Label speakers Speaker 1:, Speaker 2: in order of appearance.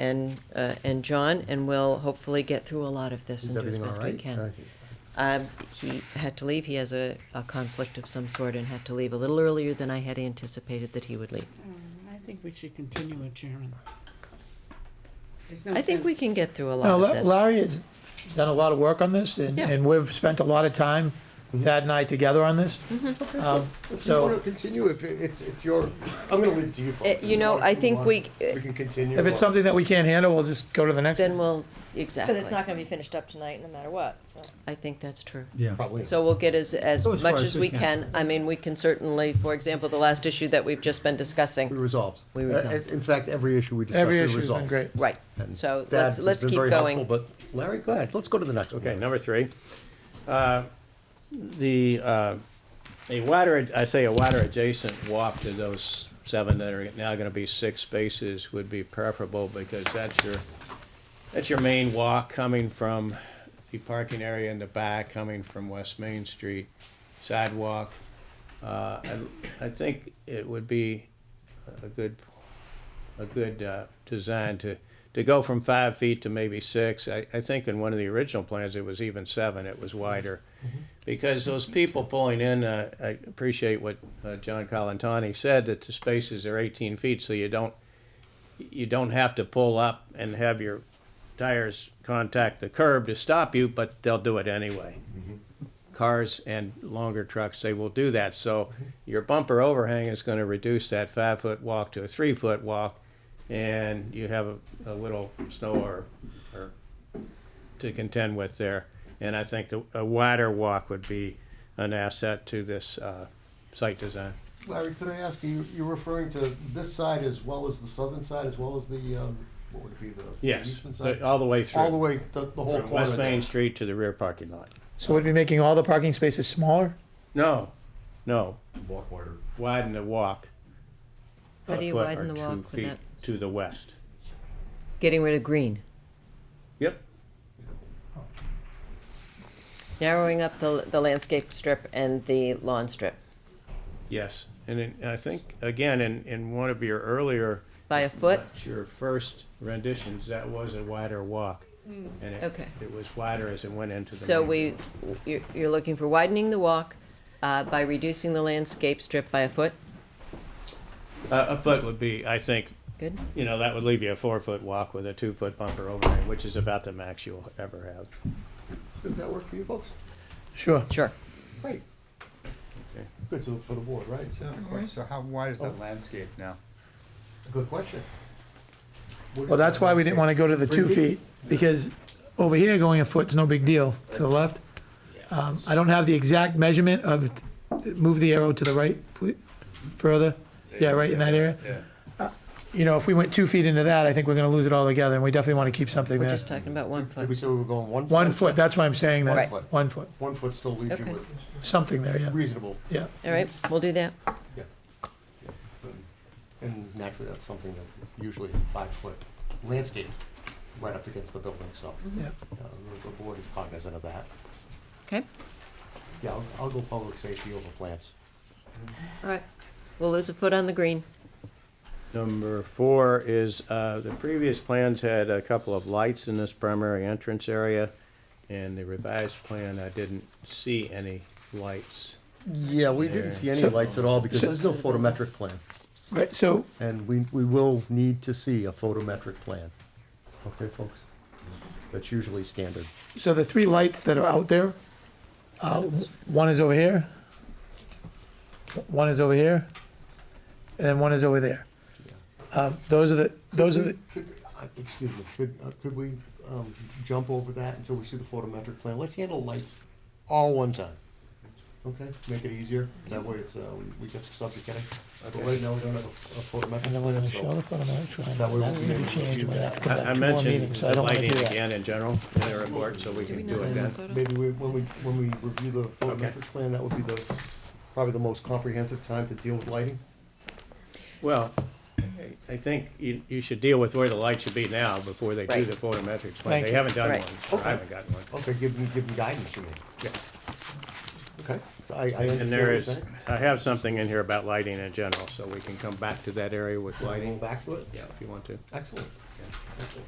Speaker 1: and, uh, and John, and we'll hopefully get through a lot of this
Speaker 2: Is
Speaker 1: and do as
Speaker 2: everything all
Speaker 1: best we
Speaker 2: right?
Speaker 1: can.
Speaker 2: Uh,
Speaker 1: Um, He had to leave, he has a, a conflict of some sort and had to leave a little earlier than I had anticipated that he would leave.
Speaker 3: Mm, I think we should continue it, Chairman. There's no
Speaker 1: I think we
Speaker 3: sense-
Speaker 1: can get through a
Speaker 4: Now,
Speaker 1: lot
Speaker 4: La-
Speaker 1: of this.
Speaker 4: Larry has done a lot of work on this, and,
Speaker 1: Yeah.
Speaker 4: and we've spent a lot of time, Thad and I, together on this.
Speaker 1: Mm-hmm.
Speaker 4: Um,
Speaker 2: If you want to
Speaker 4: So
Speaker 2: continue, if it- it's, it's your, I'm going to leave it to you. folks.
Speaker 1: Uh, you know,
Speaker 2: If want,
Speaker 1: I
Speaker 2: if you
Speaker 1: think
Speaker 2: want,
Speaker 1: we-
Speaker 2: We can continue.
Speaker 4: if it's
Speaker 2: on.
Speaker 4: something that we can't handle, we'll just go to the next.
Speaker 1: Then we'll,
Speaker 5: Because it's not
Speaker 1: exactly,
Speaker 5: gonna be finished up tonight, no matter what, so.
Speaker 1: I think that's true.
Speaker 6: Yeah.
Speaker 2: Probably.
Speaker 1: So we'll get as, as
Speaker 6: Go as far
Speaker 1: much
Speaker 6: as
Speaker 1: as
Speaker 6: we
Speaker 1: we
Speaker 6: can.
Speaker 1: can. I mean, we can certainly, for example, the last issue that we've just been
Speaker 2: We
Speaker 1: discussing.
Speaker 2: resolved.
Speaker 1: We
Speaker 2: Uh,
Speaker 1: resolved.
Speaker 2: In fact, every issue we discussed, we
Speaker 4: Every
Speaker 2: resolved.
Speaker 4: issue's been great.
Speaker 1: Right,
Speaker 2: And
Speaker 1: so
Speaker 2: Thad
Speaker 1: let's,
Speaker 2: has
Speaker 1: let's
Speaker 2: been
Speaker 1: keep
Speaker 2: very helpful,
Speaker 1: going.
Speaker 2: But Larry, go ahead, let's go to the next one.
Speaker 7: Okay, number three. Uh, The, uh, a water, I say a water adjacent walk to those seven that are now gonna be six spaces would be preferable because that's your, that's your main walk coming from the parking area in the back, coming from West Main Street sidewalk. Uh, I I think it would be a good, a good uh, design to, to go from five feet to maybe six. I, I think in one of the original plans, it was even seven, it was wider. Because those people pulling in, uh, I appreciate what uh, John Colantoni said, that the spaces are 18 feet, so you don't, you don't have to pull up and have your tires contact the curb to stop you, but they'll do it anyway cars and longer trucks, they will do that. So your bumper overhang is going to reduce that five foot walk to a three foot walk, and you have a, a little snow or, or to contend with there. And I think the, a wider walk would be an asset to this uh, site design.
Speaker 2: Larry, could I ask you, you're referring to this side as well as the southern side, as well as the, um, what would it be, the
Speaker 7: Yes,
Speaker 2: eastern
Speaker 7: the-
Speaker 2: side?
Speaker 7: all the way through.
Speaker 2: All the way, the, the whole
Speaker 7: From
Speaker 2: corner.
Speaker 7: West Main
Speaker 2: there.
Speaker 7: Street to the rear parking lot.
Speaker 4: So we'd be making all the parking spaces smaller?
Speaker 7: No, no. Walk wider. Widen the walk.
Speaker 1: How
Speaker 7: a
Speaker 1: do you
Speaker 7: foot or
Speaker 1: widen the
Speaker 7: two
Speaker 1: walk
Speaker 7: feet
Speaker 1: without
Speaker 7: To the west.
Speaker 1: getting rid of green?
Speaker 7: Yep.
Speaker 1: Narrowing up the, the landscape strip and the lawn strip
Speaker 7: Yes, and in- I think, again, in, in one of your earlier.
Speaker 1: by a foot?
Speaker 7: not Your first renditions, that was a wider walk. and it-
Speaker 1: Hmm. Okay.
Speaker 7: It was wider as it went into the.
Speaker 1: So
Speaker 7: main
Speaker 1: we,
Speaker 7: road.
Speaker 1: you're, you're looking for widening the walk uh, by reducing the landscape strip by a foot?
Speaker 7: A, a foot would be, I think,
Speaker 1: Good?
Speaker 7: you know, that would leave you a four-foot walk with a two-foot bumper overhang, which is about the max you'll ever have.
Speaker 2: Does that work for you folks?
Speaker 4: Sure.
Speaker 1: Sure.
Speaker 2: Great.
Speaker 7: Okay.
Speaker 2: Good to, for the board, right? Yeah.
Speaker 8: So how wide is that
Speaker 7: Oh.
Speaker 8: landscape now?
Speaker 2: Good question. What
Speaker 4: Well,
Speaker 2: is
Speaker 4: that's
Speaker 2: that
Speaker 4: why we didn't want to
Speaker 2: landscape?
Speaker 4: go to the two
Speaker 2: Three
Speaker 4: feet, because over here, going a foot's no big deal, to the left. Um, I don't have the exact measurement of, move the arrow to the right, please, further. Yeah, right in that area. Uh,
Speaker 8: Yeah.
Speaker 4: You know, if we went two feet into that, I think we're going to lose it all together, and we definitely want to keep something
Speaker 1: We're
Speaker 4: there.
Speaker 1: just talking about one
Speaker 2: Did we
Speaker 1: foot.
Speaker 2: say we were going one?
Speaker 4: One foot, that's why I'm saying
Speaker 2: One
Speaker 4: that.
Speaker 2: foot.
Speaker 4: One foot,
Speaker 2: One foot still leaves you
Speaker 1: Okay.
Speaker 2: with
Speaker 4: something there, yeah,
Speaker 2: reasonable,
Speaker 4: yeah.
Speaker 1: All right, we'll do that.
Speaker 2: yeah. Yeah. And- And naturally, that's something that usually is five foot landscape right up against the building, so.
Speaker 4: Yeah.
Speaker 2: uh, the- The board is cognizant of that.
Speaker 1: Okay?
Speaker 2: Yeah, I'll, I'll go public safety over plants.
Speaker 1: All right. We'll lose a foot on the green.
Speaker 7: Number four is, uh, the previous plans had a couple of lights in this primary entrance area, and the revised plan, I didn't see any lights.
Speaker 2: Yeah, we didn't see any
Speaker 4: So-
Speaker 2: lights at all because there's no photometric plan.
Speaker 4: Right, so
Speaker 2: And we, we will need to see a photometric plan. Okay, folks? That's usually standard.
Speaker 4: So the three lights that are out there, uh, one is over here, one is over here, and then one is over there. Um, those are the, those are the,
Speaker 2: Could- uh, Excuse me, could, uh, could we um, jump over that until we see the photometric plan? Let's handle lights all one time. Okay, make it easier, that way it's, uh, we- we get the subject heading. But right now, we don't have a a
Speaker 4: I never gonna
Speaker 2: photometric.
Speaker 4: show
Speaker 2: so-
Speaker 4: the photo, I'm trying,
Speaker 2: That
Speaker 4: that
Speaker 2: we won't
Speaker 4: would
Speaker 2: be able
Speaker 4: be
Speaker 2: to
Speaker 4: changed,
Speaker 2: do
Speaker 4: we have to
Speaker 2: that.
Speaker 4: come
Speaker 7: I I
Speaker 4: back to more
Speaker 7: mentioned
Speaker 4: meetings, so I
Speaker 7: the
Speaker 4: don't wanna do
Speaker 7: lighting
Speaker 4: that.
Speaker 7: again in general in the report, so we
Speaker 1: we
Speaker 7: can
Speaker 1: not
Speaker 7: do it
Speaker 1: have
Speaker 7: then.
Speaker 1: photo?
Speaker 2: Maybe we- when we, when we review the photometric plan, that would be the, probably the most comprehensive time to deal with lighting.
Speaker 7: Well, I- I think you, you should deal with where the light should be now before they do
Speaker 1: Right.
Speaker 7: the photometrics plan.
Speaker 4: Thank
Speaker 7: They
Speaker 4: you.
Speaker 7: haven't done
Speaker 1: Right.
Speaker 7: one, or I haven't gotten one.
Speaker 2: Okay, give them, give them guidance, you mean? Yeah. Okay, I, I understand.
Speaker 7: And there
Speaker 2: what you're
Speaker 7: is,
Speaker 2: saying.
Speaker 7: I have something in here about lighting in general, so we can come back to that area with
Speaker 2: Going
Speaker 7: lighting,
Speaker 2: back to it?
Speaker 7: if you want to.
Speaker 2: Excellent. Excellent.